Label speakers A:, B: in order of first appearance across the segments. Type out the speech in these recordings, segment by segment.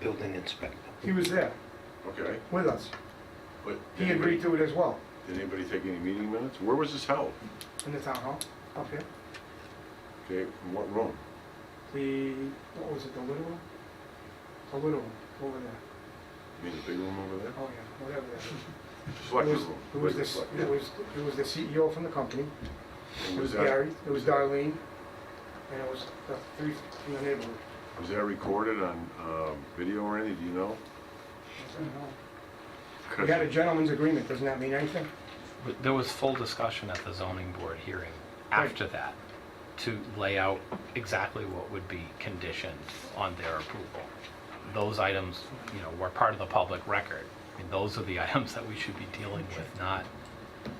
A: building inspector.
B: He was there
C: Okay,
B: with us.
C: but
B: He agreed to it as well,
C: Did anybody take any meeting minutes? Where was this held?
B: in the town hall, up here.
C: Okay, in what room?
B: The, what was it, the little one? The little one, over there.
C: You mean the big room over there?
B: Oh, yeah, whatever that is.
C: Selectors
B: It was-
C: room.
B: It was
C: Wait,
B: this,
C: select-
B: it was, it was the CEO from the company.
C: And
B: It was
C: Was that,
B: Gary, it was Darlene, and it was the three from the neighborhood.
C: was that recorded on, um, video or anything, do you know?
B: I don't know. We had a gentleman's agreement, doesn't that mean anything?
D: There was full discussion at the zoning board hearing after that to lay out exactly what would be conditioned on their approval. Those items, you know, were part of the public record. I mean, those are the items that we should be dealing with, not,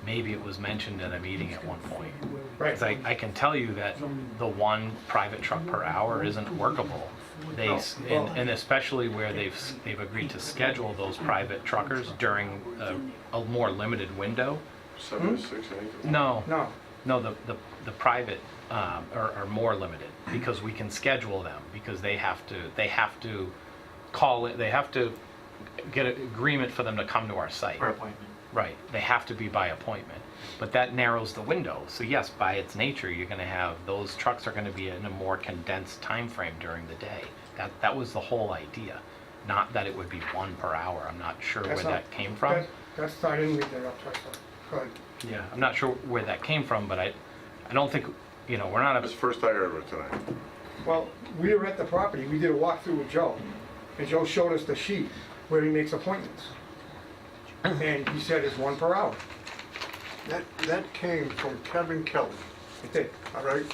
D: maybe it was mentioned at a meeting at one point.
B: Right.
D: Because I, I can tell you that the one private truck per hour isn't workable. They, s- and and especially where they've, s- they've agreed to schedule those private truckers during a, a more limited window.
B: Hmm?
C: Seven to six, I think?
D: No,
B: No,
D: no, the, the, the private um, are, are more limited because we can schedule them, because they have to, they have to call it, they have to get an agreement for them to come to our site.
E: Per appointment.
D: Right, they have to be by appointment. But that narrows the window. So yes, by its nature, you're gonna have, those trucks are gonna be in a more condensed time frame during the day. That, that was the whole idea, not that it would be one per hour. I'm not sure where
B: that's not.
D: that came from.
B: that- That's, I didn't read that up, so, go ahead.
D: Yeah, I'm not sure where that came from, but I, I don't think, you know, we're not
C: That's
D: a,
C: the first I heard of it tonight.
B: Well, we were at the property, we did a walkthrough with Joe, and Joe showed us the sheet where he makes appointments. And he said it's one per hour.
F: That, that came from Kevin Kelly,
B: It did.
F: all right?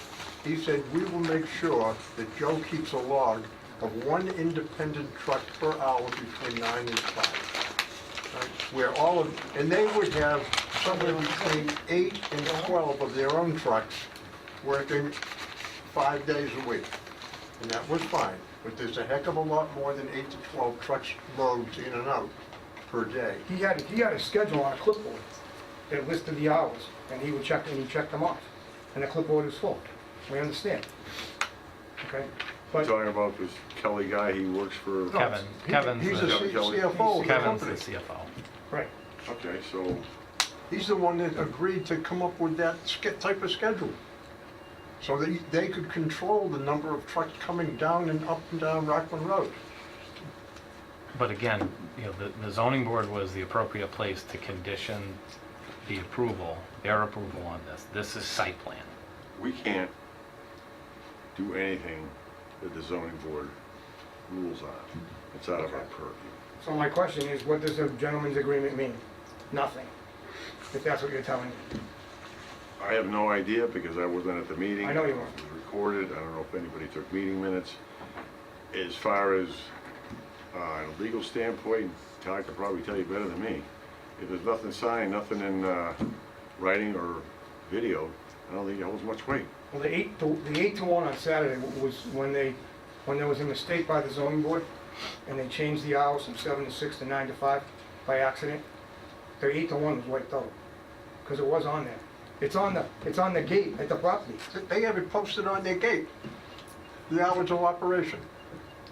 F: He said, "We will make sure that Joe keeps a log of one independent truck per hour between nine and five. Right? Where all of, and they would have somewhere between eight and 12 of their own trucks working five days a week. And that was fine, but there's a heck of a lot more than eight to 12 trucks loads in and out per day.
B: He had, he had a schedule on a clipboard that listed the hours, and he would check, and he checked them off. And the clipboard is full. We understand. Okay?
C: You're
B: But
C: Talking about this Kelly guy, he works for.
D: Kevin, Kevin's
F: He's a
D: the,
F: C- CFO of the
D: Kevin's the
F: company.
D: CFO.
B: Right.
C: Okay, so,
F: He's the one that agreed to come up with that sch- type of schedule. So that he- they could control the number of trucks coming down and up and down Rockland Road.
D: But again, you know, the, the zoning board was the appropriate place to condition the approval, their approval on this. This is site plan.
C: we can't do anything that the zoning board rules on. It's out of our purview.
B: So my question is, what does a gentleman's agreement mean? Nothing. If that's what you're telling me.
C: I have no idea because I wasn't at the meeting.
B: I know you weren't.
C: It was recorded, I don't know if anybody took meeting minutes. As far as, uh, a legal standpoint, Todd could probably tell you better than me. If there's nothing signed, nothing in, uh, writing or video, I don't think it holds much weight.
B: Well, the eight, to- the eight to one on Saturday w- was when they, when there was a mistake by the zoning board, and they changed the hours from seven to six to nine to five by accident. The eight to one was wiped out, because it was on there. It's on the, it's on the gate at the property.
F: Th- They have it posted on their gate, the hours of operation.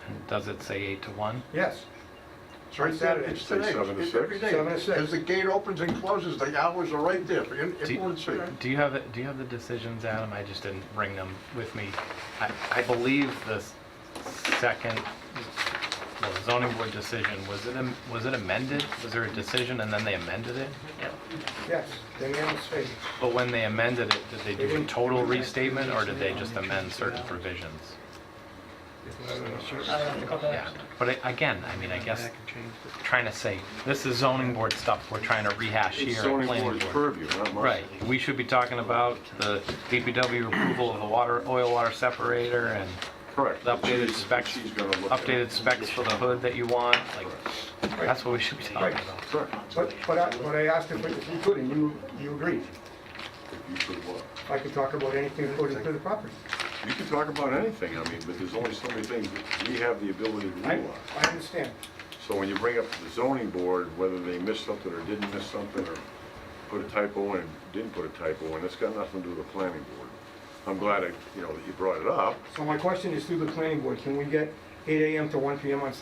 D: And Does it say eight to one?
B: Yes,
F: It's right there, it's
C: Say
F: today,
C: seven to
F: it's
C: six?
F: every day.
B: Seven to six.
F: As the gate opens and closes, the hours are right there for in-
D: Do
F: everyone to see.
D: you- do you have, it- do you have the decisions, Adam? I just didn't bring them with me. I, I believe the s- second, well, the zoning board decision, was it, am- was it amended? Was there a decision and then they amended it?
B: yes, they made a mistake.
D: But when they amended it, did they do a total restatement or did they just amend certain provisions? Yeah, but I- again, I mean, I guess, trying to say, this is zoning board stuff we're trying to rehash here.
C: It's
D: at
C: zoning
D: planning
C: board's
D: board.
C: purview, not mine.
D: Right, we should be talking about the DPW approval of the water, oil water separator and
C: Correct.
D: the updated
C: She's-
D: specs,
C: she's gonna look at it.
D: updated specs for the hood that you want, like, that's what we should be talking
B: Right.
D: about.
C: Correct.
B: But, but I, but I asked if we- if you could, and you, you agreed.
C: You could look.
B: I could talk about anything according to the property.
C: You can talk about anything, I mean, but there's only so many things that we have the ability to
B: I,
C: rule on.
B: I understand.
C: So when you bring up to the zoning board, whether they missed something or didn't miss something, or put a typo in, didn't put a typo in, it's got nothing to do with the planning board. I'm glad, I- you know, that you brought it up,
B: So my question is through the planning board, can we get eight AM to one PM on Saturday